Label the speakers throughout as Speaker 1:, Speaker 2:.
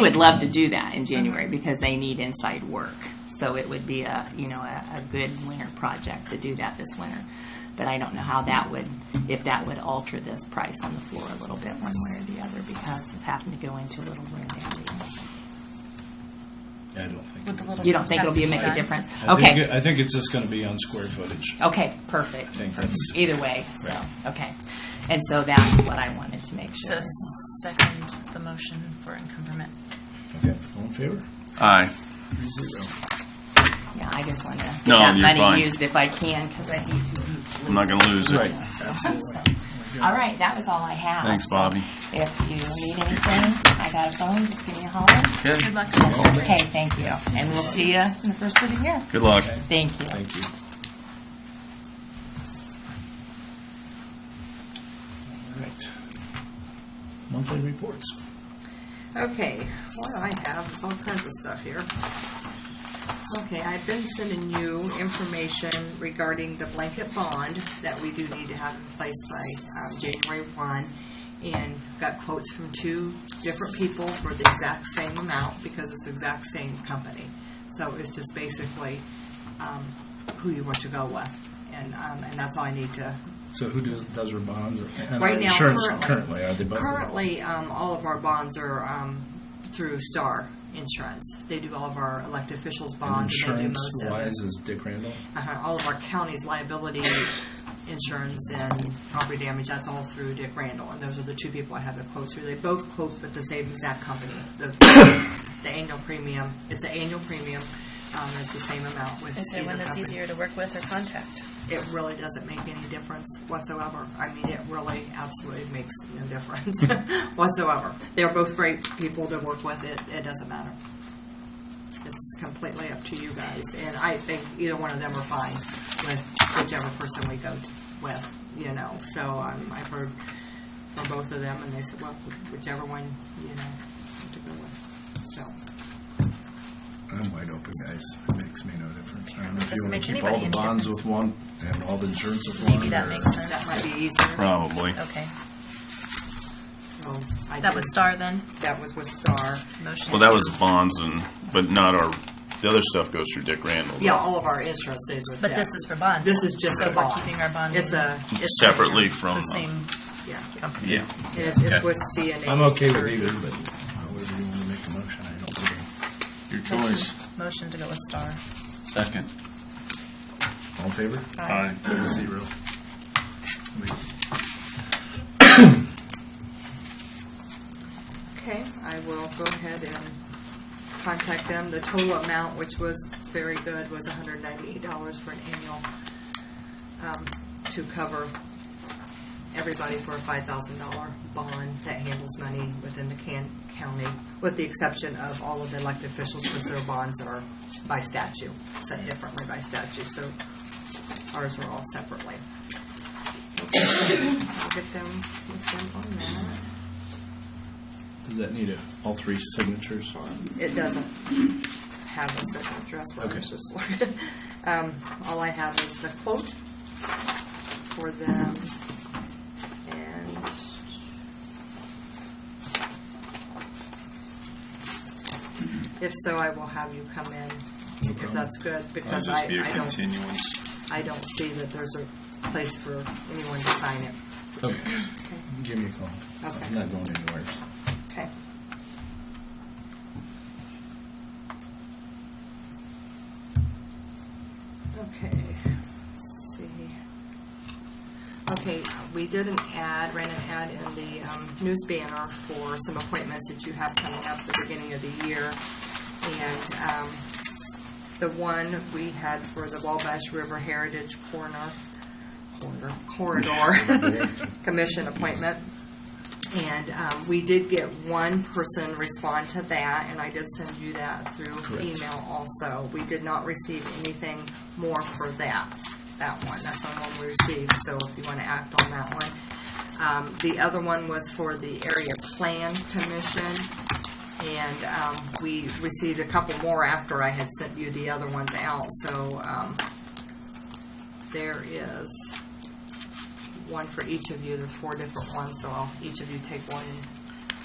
Speaker 1: would love to do that in January because they need inside work. So it would be a, you know, a, a good winter project to do that this winter. But I don't know how that would, if that would alter this price on the floor a little bit one way or the other because of having to go into a little winter meeting.
Speaker 2: I don't think.
Speaker 3: With the little
Speaker 1: You don't think it'll be, make a
Speaker 3: Done.
Speaker 1: difference?
Speaker 2: I think it-
Speaker 1: Okay,
Speaker 2: I think it's just going to be on square footage.
Speaker 1: okay,
Speaker 2: I
Speaker 1: perfect.
Speaker 2: think that's,
Speaker 1: Either way, so,
Speaker 2: Right.
Speaker 1: okay. And so that's what I wanted to make
Speaker 3: So
Speaker 1: sure.
Speaker 3: second the motion for income permit.
Speaker 2: okay, all in favor?
Speaker 4: Aye.
Speaker 2: Three zero.
Speaker 1: Yeah, I just want to get
Speaker 4: No,
Speaker 1: that
Speaker 4: you're fine.
Speaker 1: money used if I can because I need to be
Speaker 4: I'm not going to lose it.
Speaker 2: Right.
Speaker 1: All right, that was all I have.
Speaker 4: Thanks, Bobby.
Speaker 1: If you need anything, I got a phone, just give me a holler.
Speaker 3: Good luck to you.
Speaker 1: Okay, thank you. And we'll see you in the first of the year.
Speaker 4: Good luck.
Speaker 1: Thank you.
Speaker 2: Thank you. All right. Monthly reports.
Speaker 5: Okay, what I have is all kinds of stuff here. Okay, I've been sending you information regarding the blanket bond that we do need to have in place by um, January 1, and got quotes from two different people for the exact same amount because it's the exact same company. So it's just basically um, who you want to go with, and, um, and that's all I need to
Speaker 2: So who does, does our bonds and our
Speaker 5: Right now,
Speaker 2: insurance
Speaker 5: currently.
Speaker 2: currently? Are they both?
Speaker 5: Currently, um, all of our bonds are, um, through Star Insurance. They do all of our elected officials' bonds, and they do
Speaker 2: Insurance
Speaker 5: most of it.
Speaker 2: wise is Dick Randall?
Speaker 5: Uh-huh, all of our county's liability insurance and property damage, that's all through Dick Randall, and those are the two people I have the quotes through. They both quote with the same exact company, the, the annual premium, it's an annual premium, um, it's the same amount with
Speaker 3: Is there
Speaker 5: either
Speaker 3: one that's
Speaker 5: company
Speaker 3: easier to work with or contact?
Speaker 5: it really doesn't make any difference whatsoever. I mean, it really absolutely makes no difference whatsoever. They're both great people to work with. It, it doesn't matter. It's completely up to you guys. And I think either one of them are fine with whichever person we go t with, you know. So um, I've heard from both of them, and they said, well, whichever one, you know, to go with. So,
Speaker 2: I'm wide open, guys. It makes me no difference. I don't know if you
Speaker 3: Doesn't
Speaker 2: want to
Speaker 3: make
Speaker 2: keep
Speaker 3: anybody
Speaker 2: all the
Speaker 3: any
Speaker 2: bonds with one and all the insurance with one.
Speaker 3: Maybe that
Speaker 2: or-
Speaker 3: makes
Speaker 5: that
Speaker 3: sense.
Speaker 5: might be easier.
Speaker 4: Probably.
Speaker 3: Okay.
Speaker 5: So I
Speaker 3: That
Speaker 5: did-
Speaker 3: was Star then,
Speaker 5: That was with Star.
Speaker 3: motion.
Speaker 4: Well, that was bonds and, but not our, the other stuff goes through Dick Randall. though.
Speaker 5: Yeah, all of our insurance stays with
Speaker 3: But
Speaker 5: them.
Speaker 3: this is for bonds.
Speaker 5: This is just
Speaker 3: So
Speaker 5: the
Speaker 3: we're
Speaker 5: bond.
Speaker 3: keeping our bond
Speaker 5: It's a. it's-
Speaker 4: Separately from, uh,
Speaker 3: The same
Speaker 5: Yeah,
Speaker 3: company.
Speaker 4: yeah.
Speaker 5: it is, it's with CNA.
Speaker 2: I'm okay with either, but however you want to make a motion, I don't care.
Speaker 6: Your
Speaker 3: Motion-
Speaker 6: choice.
Speaker 3: Motion to go with Star.
Speaker 6: Second.
Speaker 2: All in favor?
Speaker 3: Aye.
Speaker 2: Three Zero. Wait,
Speaker 5: Okay, I will go ahead and contact them. The total amount, which was very good, was hundred ninety-eight dollars for an annual, um, to cover everybody for a five thousand dollar bond that handles money within the can, county, with the exception of all of the elected officials, because their bonds are by statute, set differently by statute, so ours are all separately. Okay, I'll get them, get them on that.
Speaker 2: Does that need a, all three signatures?
Speaker 5: It doesn't have a signature, that's what I was
Speaker 2: Okay.
Speaker 5: just looking. Um, All I have is the quote for them, and if so, I will have you come in, if
Speaker 2: problem.
Speaker 5: that's good, because I, I don't, I don't see that there's a place for anyone to sign it.
Speaker 2: Okay. Give me a call.
Speaker 5: Okay.
Speaker 2: I'm not going anywhere, so.
Speaker 5: Okay. Okay, let's see. Okay, we did an ad, ran an ad in the um, news banner for some appointments that you have coming up at the beginning of the year. And um, the one we had for the Wabash River Heritage Corner, corner- Corridor Commission appointment. And um, we did get one person respond to that, and I did send you that through
Speaker 2: Correct.
Speaker 5: email also. We did not receive anything more for that, that one. That's the only one we received, so if you want to act on that one. Um, The other one was for the Area Plan Commission, and um, we received a couple more after I had sent you the other ones out, so um, there is one for each of you, there are four different ones, so I'll, each of you take one and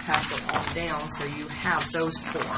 Speaker 5: have them all down, so you have those four.